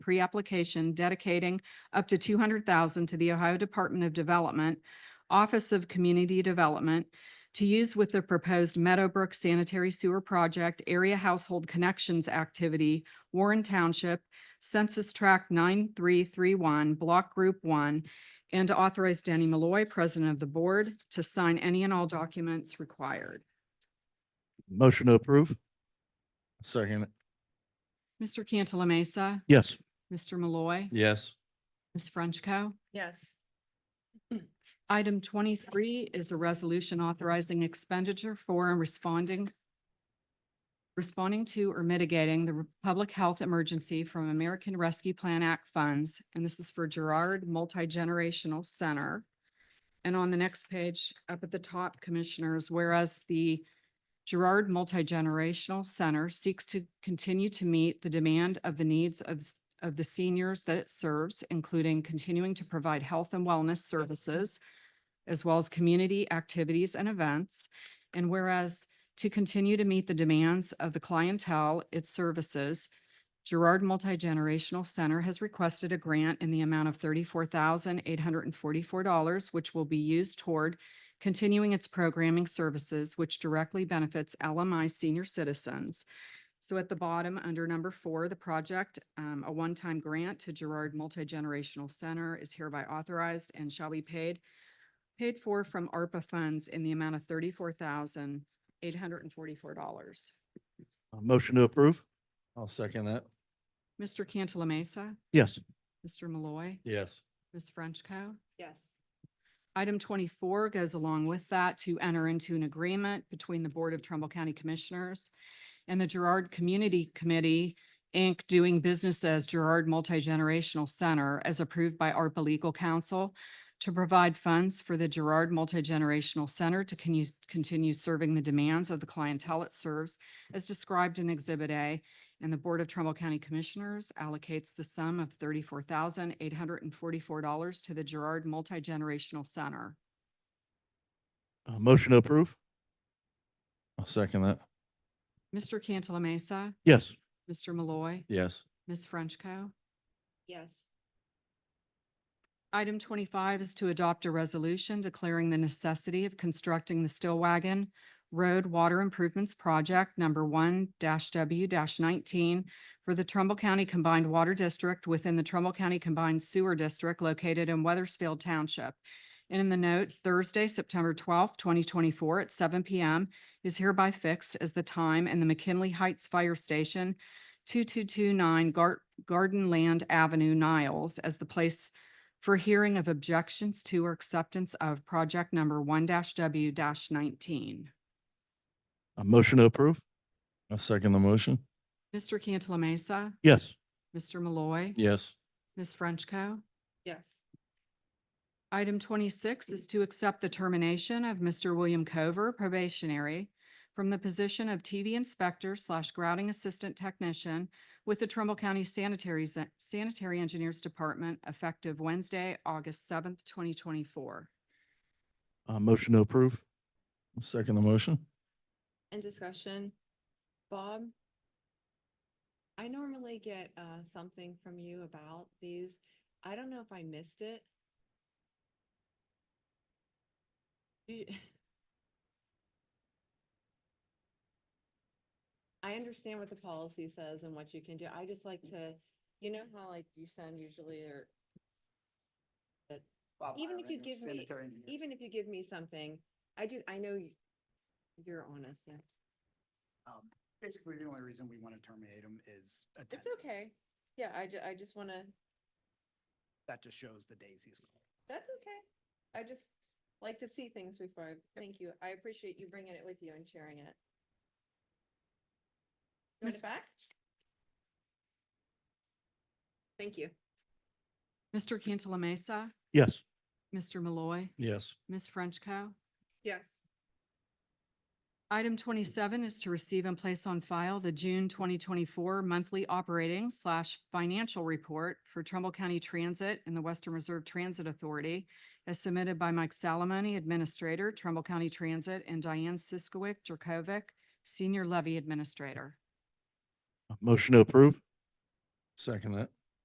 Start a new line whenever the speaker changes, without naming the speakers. pre-application dedicating up to two hundred thousand to the Ohio Department of Development, Office of Community Development to use with the proposed Meadowbrook Sanitary Sewer Project Area Household Connections Activity, Warren Township, Census Tract nine three three one, Block Group One, and to authorize Danny Malloy, President of the Board, to sign any and all documents required.
Motion to approve. Second. it.
Mr. Cantala Mesa,
Yes.
Mr. Malloy,
Yes.
Ms. Frenchco.
yes,
Item twenty-three is a resolution authorizing expenditure for and responding responding to or mitigating the public health emergency from American Rescue Plan Act funds, and this is for Gerard Multi-Generational Center. And on the next page, up at the top, Commissioners, whereas the Gerard Multi-Generational Center seeks to continue to meet the demand of the needs of, s- of the seniors that it serves, including continuing to provide health and wellness services, as well as community activities and events. And whereas to continue to meet the demands of the clientele it services, Gerard Multi-Generational Center has requested a grant in the amount of thirty-four thousand eight hundred and forty-four dollars, which will be used toward continuing its programming services, which directly benefits LMI senior citizens. So at the bottom, under number four, the project, um, a one-time grant to Gerard Multi-Generational Center is hereby authorized and shall be paid paid for from ARPA funds in the amount of thirty-four thousand eight hundred and forty-four dollars.
Uh, Motion to approve. I'll second that.
Mr. Cantala Mesa,
Yes.
Mr. Malloy,
Yes.
Ms. Frenchco.
yes,
Item twenty-four goes along with that to enter into an agreement between the Board of Trumbull County Commissioners and the Gerard Community Committee, Inc., doing business as Gerard Multi-Generational Center, as approved by ARPA Legal Counsel, to provide funds for the Gerard Multi-Generational Center to con- continue serving the demands of the clientele it serves, as described in Exhibit A. And the Board of Trumbull County Commissioners allocates the sum of thirty-four thousand, eight hundred and forty-four dollars to the Gerard Multi-Generational Center.
Uh, Motion to approve. I'll second that.
Mr. Cantala Mesa,
Yes.
Mr. Malloy,
Yes.
Ms. Frenchco.
yes,
Item twenty-five is to adopt a resolution declaring the necessity of constructing the Still Wagon Road Water Improvements Project number one W nineteen for the Trumbull County Combined Water District within the Trumbull County Combined Sewer District located in Weathersfield Township. And in the note, Thursday, September twelfth, twenty twenty-four at seven P M is hereby fixed as the time and the McKinley Heights Fire Station, two-two-two-nine Garden Land Avenue, Niles, as the place for hearing of objections to or acceptance of project number one W nineteen.
Motion to approve. I'll second the motion.
Mr. Cantala Mesa,
Yes.
Mr. Malloy,
Yes.
Ms. Frenchco.
yes,
Item twenty-six is to accept the termination of Mr. William Cover probationary from the position of TV Inspector slash Grouting Assistant Technician with the Trumbull County Sanitary, Z- Sanitary Engineers Department effective Wednesday, August seventh, twenty twenty-four.
Motion to approve. I'll second the motion.
and discussion. Bob? I normally get uh something from you about these. I don't know if I missed it. Do you- I understand what the policy says and what you can do. I just like to, you know how like you send usually or Even if you give me- even if you give me something, I just, I know you- you're honest, yeah.
Um, basically, the only reason we want to terminate him is
It's
attendance.
okay. Yeah, I ju- I just wanna,
That just shows the days he's.
that's okay. I just like to see things before. I Thank you. I appreciate you bringing it with you and sharing it. You want
Miss-
it back? Thank you.
Mr. Cantala Mesa,
Yes.
Mr. Malloy,
Yes.
Ms. Frenchco.
Yes.
Item twenty-seven is to receive and place on file the June twenty twenty-four monthly operating slash financial report for Trumbull County Transit and the Western Reserve Transit Authority as submitted by Mike Salamone, Administrator, Trumbull County Transit, and Diane Siskowick Jerkovic, Senior Levy Administrator.
Motion to approve. Second that.